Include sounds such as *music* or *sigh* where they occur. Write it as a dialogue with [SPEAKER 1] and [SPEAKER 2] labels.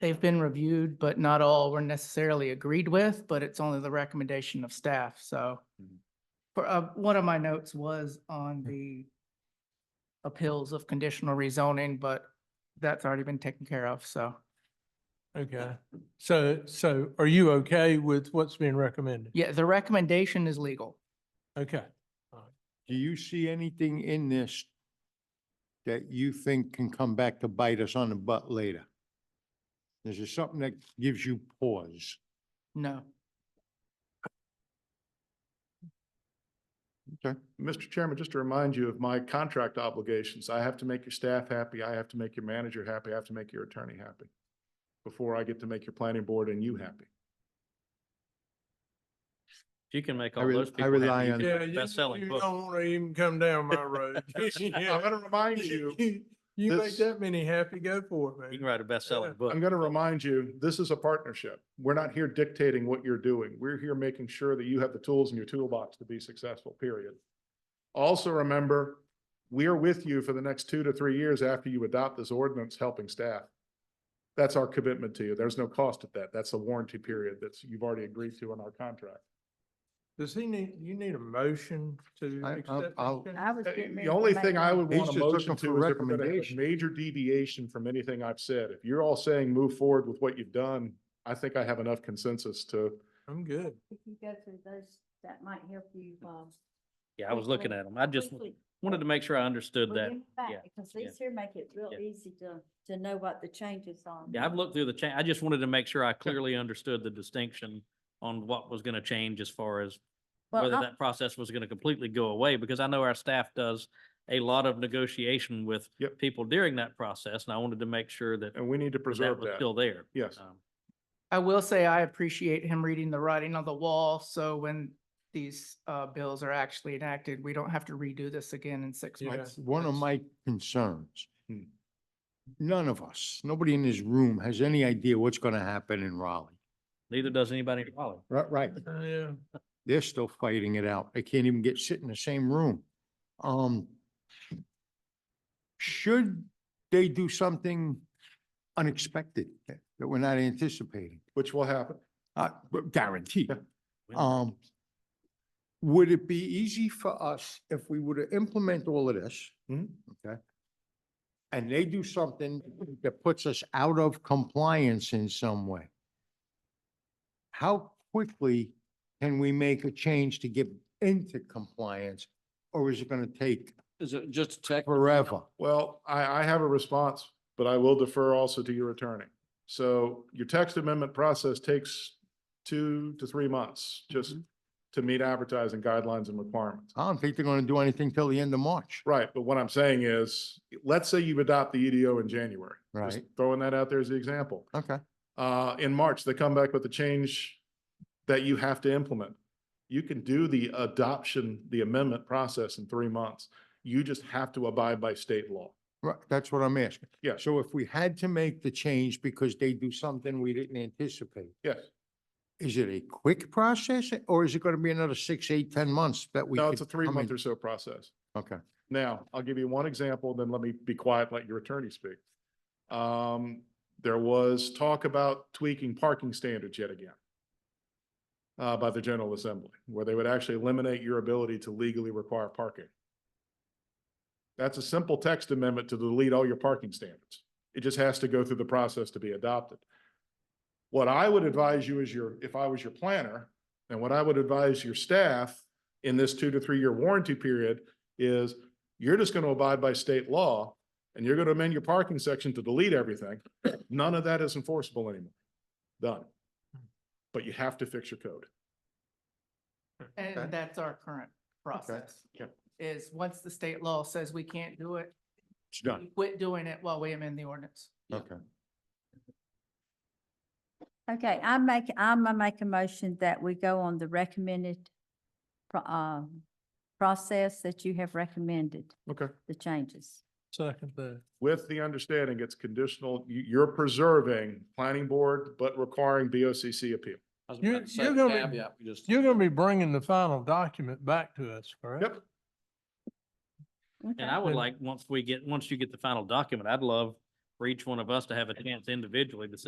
[SPEAKER 1] They've been reviewed, but not all were necessarily agreed with, but it's only the recommendation of staff, so.
[SPEAKER 2] Mhm.
[SPEAKER 1] For, uh, one of my notes was on
[SPEAKER 2] Mm-hmm.
[SPEAKER 1] the appeals of conditional rezoning, but that's already been taken care of, so,
[SPEAKER 3] Okay, so, so are you okay with what's being recommended?
[SPEAKER 1] yeah, the recommendation is legal.
[SPEAKER 3] Okay,
[SPEAKER 2] Do you see anything in this that you think can come back to bite us on the butt later? Is there something that gives you pause?
[SPEAKER 1] No,
[SPEAKER 2] Okay.
[SPEAKER 4] Mr. Chairman, just to remind you of my contract obligations, I have to make your staff happy, I have to make your manager happy, I have to make your attorney happy before I get to make your planning board and you happy.
[SPEAKER 5] If you can make
[SPEAKER 2] I
[SPEAKER 5] all
[SPEAKER 2] re-
[SPEAKER 5] those
[SPEAKER 2] I
[SPEAKER 5] people happy,
[SPEAKER 2] rely
[SPEAKER 5] you
[SPEAKER 2] on-
[SPEAKER 5] can
[SPEAKER 3] yeah,
[SPEAKER 5] have a
[SPEAKER 3] you
[SPEAKER 5] best-selling
[SPEAKER 3] you
[SPEAKER 5] book.
[SPEAKER 3] don't want to even come down my road. *laughs*
[SPEAKER 4] I'm
[SPEAKER 3] Yeah.
[SPEAKER 4] gonna remind you,
[SPEAKER 3] You you make
[SPEAKER 4] this-
[SPEAKER 3] that many happy, go for it,
[SPEAKER 5] You
[SPEAKER 3] man.
[SPEAKER 5] can write a best-selling book.
[SPEAKER 4] I'm gonna remind you, this is a partnership. We're not here dictating what you're doing. We're here making sure that you have the tools in your toolbox to be successful, period. Also remember, we are with you for the next two to three years after you adopt this ordinance, helping staff. That's our commitment to you. There's no cost at that. That's a warranty period that's, you've already agreed to in our contract.
[SPEAKER 3] Does he need, you need a motion to
[SPEAKER 2] I- I'll-
[SPEAKER 3] accept? this
[SPEAKER 2] I'll-
[SPEAKER 3] change?
[SPEAKER 6] I was.
[SPEAKER 4] Uh,
[SPEAKER 6] getting ready
[SPEAKER 4] The
[SPEAKER 6] to
[SPEAKER 4] only
[SPEAKER 6] make
[SPEAKER 4] thing I
[SPEAKER 6] one.
[SPEAKER 4] would
[SPEAKER 2] He's
[SPEAKER 4] want a
[SPEAKER 2] just looking
[SPEAKER 4] motion
[SPEAKER 2] for
[SPEAKER 4] to is if we're gonna have a
[SPEAKER 2] recommendation.
[SPEAKER 4] major deviation from anything I've said. If you're all saying move forward with what you've done, I think I have enough consensus to
[SPEAKER 3] I'm good.
[SPEAKER 6] If you go through those, that might help you, um.
[SPEAKER 5] Yeah, I was looking
[SPEAKER 6] quickly-
[SPEAKER 5] at them. I just
[SPEAKER 6] quickly
[SPEAKER 5] wanted to make sure I understood
[SPEAKER 6] bring
[SPEAKER 5] that.
[SPEAKER 6] them back,
[SPEAKER 5] yeah,
[SPEAKER 6] Because
[SPEAKER 5] yeah.
[SPEAKER 6] these here make it real
[SPEAKER 5] Yeah.
[SPEAKER 6] easy to, to know what the changes are.
[SPEAKER 5] Yeah, I've looked through the change. I just wanted to make sure I clearly understood the distinction on what was going to change as far as
[SPEAKER 6] Well,
[SPEAKER 5] whether
[SPEAKER 6] I'm-
[SPEAKER 5] that process was going to completely go away, because I know our staff does a lot of negotiation with
[SPEAKER 4] Yep.
[SPEAKER 5] people during that process, and I wanted to make sure that
[SPEAKER 4] And we need to
[SPEAKER 5] that
[SPEAKER 4] preserve
[SPEAKER 5] was
[SPEAKER 4] that.
[SPEAKER 5] still there.
[SPEAKER 4] Yes.
[SPEAKER 5] Um,
[SPEAKER 1] I will say I appreciate him reading the writing on the wall, so when these, uh, bills are actually enacted, we don't have to redo this again in six
[SPEAKER 3] Yeah.
[SPEAKER 1] months.
[SPEAKER 2] That's one of
[SPEAKER 3] that's-
[SPEAKER 2] my concerns.
[SPEAKER 4] Hmm.
[SPEAKER 2] None of us, nobody in this room has any idea what's going to happen in Raleigh.
[SPEAKER 5] Neither does anybody in Raleigh.
[SPEAKER 2] Right, right.
[SPEAKER 3] Uh, Yeah.
[SPEAKER 2] They're still fighting it out. They can't even get, sit in the same room. Um, should they do something unexpected that that we're not anticipating?
[SPEAKER 4] which will happen.
[SPEAKER 2] Uh, guaranteed.
[SPEAKER 5] We don't-
[SPEAKER 2] Um, would it be easy for us if we were to implement all of this?
[SPEAKER 4] Mhm.
[SPEAKER 2] Okay? And they do something that puts us out of compliance in some way? How quickly can we make a change to get into compliance? Or is it gonna take
[SPEAKER 7] Is it just a tech?
[SPEAKER 2] forever?
[SPEAKER 4] Well, I, I have a response, but I will defer also to your attorney. So your text amendment process takes two to three months just to meet advertising guidelines and requirements.
[SPEAKER 2] I don't think they're gonna do anything till the end of March.
[SPEAKER 4] Right, but what I'm saying is, let's say you adopt the EDO in January. Just
[SPEAKER 2] Right.
[SPEAKER 4] Throwing that out there as the example.
[SPEAKER 2] Okay,
[SPEAKER 4] Uh, in March, they come back with a change that you have to implement. You can do the adoption, the amendment process in three months. You just have to abide by state law.
[SPEAKER 2] right, that's what I'm asking.
[SPEAKER 4] Yes.
[SPEAKER 2] So if we had to make the change because they do something we didn't anticipate,
[SPEAKER 4] Yes.
[SPEAKER 2] is it a quick process or is it going to be another six, eight, ten months that we?
[SPEAKER 4] No,
[SPEAKER 2] could
[SPEAKER 4] it's a three
[SPEAKER 2] come
[SPEAKER 4] month
[SPEAKER 2] in?
[SPEAKER 4] or so process.
[SPEAKER 2] Okay.
[SPEAKER 4] Now, I'll give you one example, then let me be quiet, let your attorney speak. Um, there was talk about tweaking parking standards yet again uh, by the General Assembly, where they would actually eliminate your ability to legally require parking. That's a simple text amendment to delete all your parking standards. It just has to go through the process to be adopted. What I would advise you as your, if I was your planner, and what I would advise your staff in this two to three year warranty period is you're just going to abide by state law and you're going to amend your parking section to delete everything. None of that is enforceable anymore. Done. But you have to fix your code.
[SPEAKER 2] Okay.
[SPEAKER 1] And that's our current process.
[SPEAKER 4] yeah.
[SPEAKER 1] Is once the state law says we can't do it,
[SPEAKER 2] It's done.
[SPEAKER 1] we quit doing it while we amend the ordinance.
[SPEAKER 2] Okay.
[SPEAKER 6] Okay, I make, I'm gonna make a motion that we go on the recommended pro- um, process that you have recommended,
[SPEAKER 4] Okay.
[SPEAKER 6] the changes.
[SPEAKER 3] Second that.
[SPEAKER 4] With the understanding it's conditional, you, you're preserving planning board, but requiring BOCC appeal.
[SPEAKER 7] I was
[SPEAKER 3] You-
[SPEAKER 7] about to say
[SPEAKER 3] you're gonna be-
[SPEAKER 7] caveat, we just-
[SPEAKER 3] You're going to be bringing the final document back to us, correct?
[SPEAKER 4] Yep.
[SPEAKER 6] Okay.
[SPEAKER 5] And I would
[SPEAKER 3] And-
[SPEAKER 5] like, once we get, once you get the final document, I'd love for each one of us to have a chance individually to sit